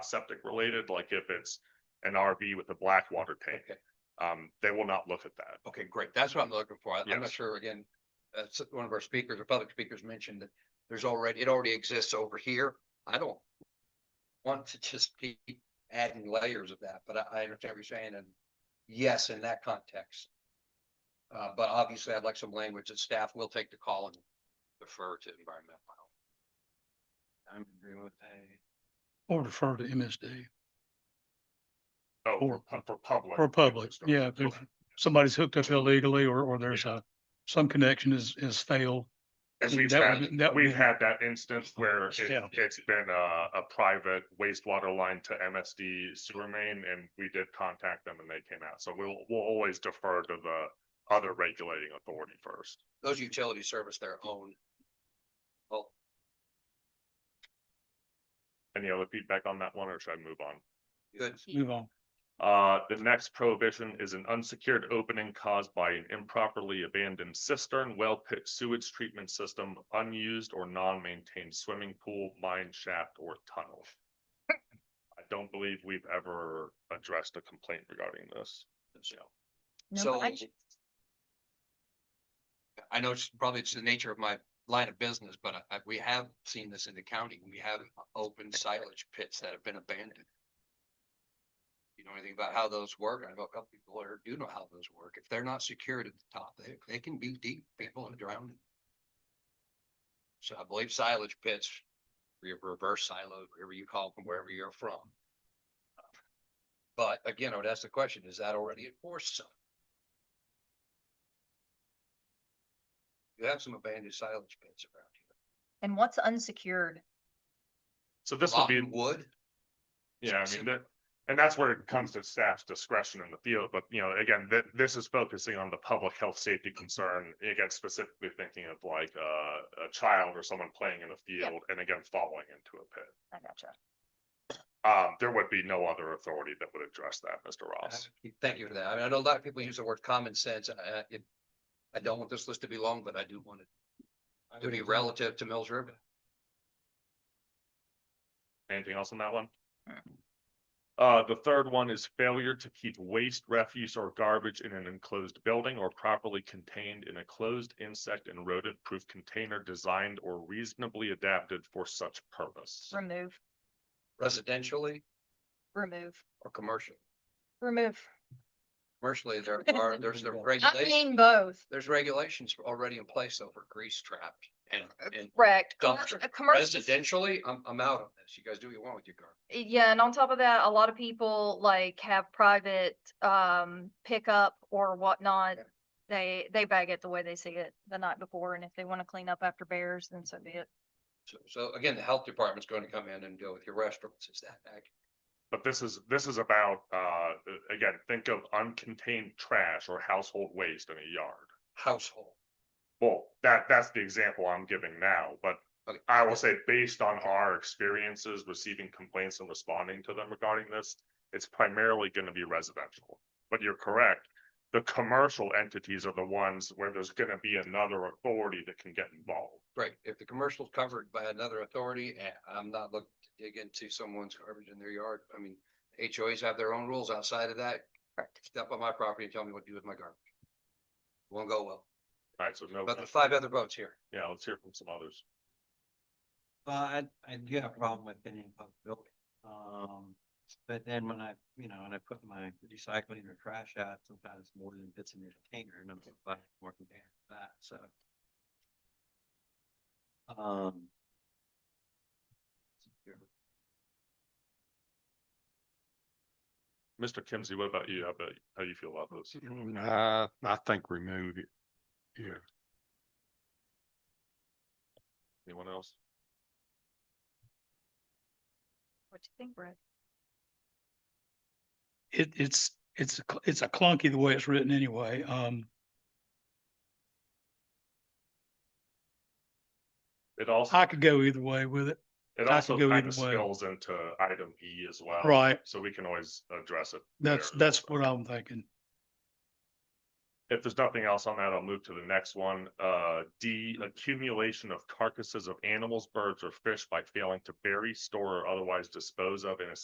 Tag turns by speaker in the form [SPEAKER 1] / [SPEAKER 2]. [SPEAKER 1] septic related, like if it's an RV with a black water tank,
[SPEAKER 2] Okay,
[SPEAKER 1] um, they will not look at that.
[SPEAKER 2] okay, great. That's what I'm looking for. I- I'm
[SPEAKER 1] Yes.
[SPEAKER 2] not sure, again, uh, s- one of our speakers or public speakers mentioned that there's already, it already exists over here. I don't want to just keep adding layers of that, but I, I understand what you're saying and yes, in that context. Uh, but obviously I'd like some language that staff will take the call and defer to environmental. I'm agreeing with that.
[SPEAKER 3] Or refer to MSD
[SPEAKER 1] Oh,
[SPEAKER 3] Or-
[SPEAKER 1] for- for public.
[SPEAKER 3] or public. Yeah, if there's-
[SPEAKER 1] Okay.
[SPEAKER 3] somebody's hooked up illegally or, or there's a, some connection is, is failed.
[SPEAKER 1] And
[SPEAKER 3] Mm,
[SPEAKER 1] we've
[SPEAKER 3] that would
[SPEAKER 1] had,
[SPEAKER 3] be- that would
[SPEAKER 1] we've
[SPEAKER 3] be-
[SPEAKER 1] had that instance where it-
[SPEAKER 3] Yeah.
[SPEAKER 1] it's been a, a private wastewater line to MSD sewer main and we did contact them and they came out. So we'll, we'll always defer to the other regulating authority first.
[SPEAKER 2] Those utilities service their own. Well,
[SPEAKER 1] Any other feedback on that one or should I move on?
[SPEAKER 2] good.
[SPEAKER 3] Move on.
[SPEAKER 1] Uh, the next prohibition is an unsecured opening caused by an improperly abandoned cistern, well pit sewage treatment system, unused or non-maintained swimming pool, mine shaft or tunnel. I don't believe we've ever addressed a complaint regarding this.
[SPEAKER 4] No,
[SPEAKER 2] So.
[SPEAKER 4] but I-
[SPEAKER 2] I know it's probably it's the nature of my line of business, but I, I- we have seen this in the county. We have open silage pits that have been abandoned. You know anything about how those work? I know a couple people here do know how those work. If they're not secured at the top, they, they can be deep. People are drowning. So I believe silage pits, re- reverse silo, whatever you call them, wherever you're from. But again, I would ask the question, is that already enforced? some? You have some abandoned silage pits around here.
[SPEAKER 4] And what's unsecured?
[SPEAKER 1] So this will be,
[SPEAKER 2] Rotten Wood,
[SPEAKER 1] yeah, I mean, that, and that's where it comes to staff's discretion in the field, but you know, again, th- this is focusing on the public health safety concern. Again, specifically thinking of like, uh, a child or someone playing in a
[SPEAKER 4] Yeah.
[SPEAKER 1] field and again, falling into a pit.
[SPEAKER 4] I gotcha.
[SPEAKER 1] Um, there would be no other authority that would address that, Mr. Ross.
[SPEAKER 2] thank you for that. I mean, I know a lot of people use the word common sense and I, it. I don't want this list to be long, but I do want it to be relative to Mills River.
[SPEAKER 1] Anything else on that one? Uh, the third one is failure to keep waste, refuse or garbage in an enclosed building or properly contained in a closed insect and rodent proof container designed or reasonably adapted for such purpose.
[SPEAKER 4] Remove,
[SPEAKER 2] Residentially
[SPEAKER 4] remove,
[SPEAKER 2] or commercial?
[SPEAKER 4] remove.
[SPEAKER 2] Commercially, there are, there's the
[SPEAKER 4] I
[SPEAKER 2] regulations,
[SPEAKER 4] mean both,
[SPEAKER 2] there's regulations already in place over grease trap and, and
[SPEAKER 4] correct.
[SPEAKER 2] dumpster.
[SPEAKER 4] A commercial,
[SPEAKER 2] Residentially, I'm, I'm out on this. You guys do what you want with your garbage.
[SPEAKER 4] yeah, and on top of that, a lot of people like have private um pickup or whatnot.
[SPEAKER 2] Yeah.
[SPEAKER 4] They, they bag it the way they see it the night before, and if they want to clean up after bears, then so be it.
[SPEAKER 2] So, so again, the health department's going to come in and deal with your restaurants. Is that accurate?
[SPEAKER 1] But this is, this is about, uh, again, think of uncontained trash or household waste in a yard.
[SPEAKER 2] household?
[SPEAKER 1] Well, that, that's the example I'm giving now, but
[SPEAKER 2] Okay.
[SPEAKER 1] I will say, based on our experiences receiving complaints and responding to them regarding this, it's primarily gonna be residential. But you're correct, the commercial entities are the ones where there's gonna be another authority that can get involved.
[SPEAKER 2] Right, if the commercial's covered by another authority, eh, I'm not looking to dig into someone's garbage in their yard. I mean, HOAs have their own rules outside of that.
[SPEAKER 4] Correct.
[SPEAKER 2] Step on my property and tell me what to do with my garbage. Won't go well,
[SPEAKER 1] Alright, so no,
[SPEAKER 2] but the five other votes here.
[SPEAKER 1] yeah, let's hear from some others.
[SPEAKER 5] Well, I, I do have a problem with any public building. Um, but then when I, you know, and I put my recycling or trash out, sometimes more than fits in your container and I'm like, more container than that, so. Um.
[SPEAKER 1] Mr. Kimsey, what about you? How about, how you feel about this?
[SPEAKER 6] Mm, I, I think remove it. Yeah.
[SPEAKER 1] Anyone else?
[SPEAKER 4] What do you think, Brett?
[SPEAKER 3] It, it's, it's, a cl- it's a clunky the way it's written anyway. Um,
[SPEAKER 1] It also,
[SPEAKER 3] I could go either way with it.
[SPEAKER 1] it
[SPEAKER 3] I
[SPEAKER 1] also
[SPEAKER 3] could go
[SPEAKER 1] kind of
[SPEAKER 3] either way.
[SPEAKER 1] spills into item E as well.
[SPEAKER 3] Right.
[SPEAKER 1] So we can always address it.
[SPEAKER 3] That's,
[SPEAKER 1] there.
[SPEAKER 3] that's what I'm thinking.
[SPEAKER 1] If there's nothing else on that, I'll move to the next one. Uh, D, accumulation of carcasses of animals, birds, or fish by failing to bury, store, or otherwise dispose of in a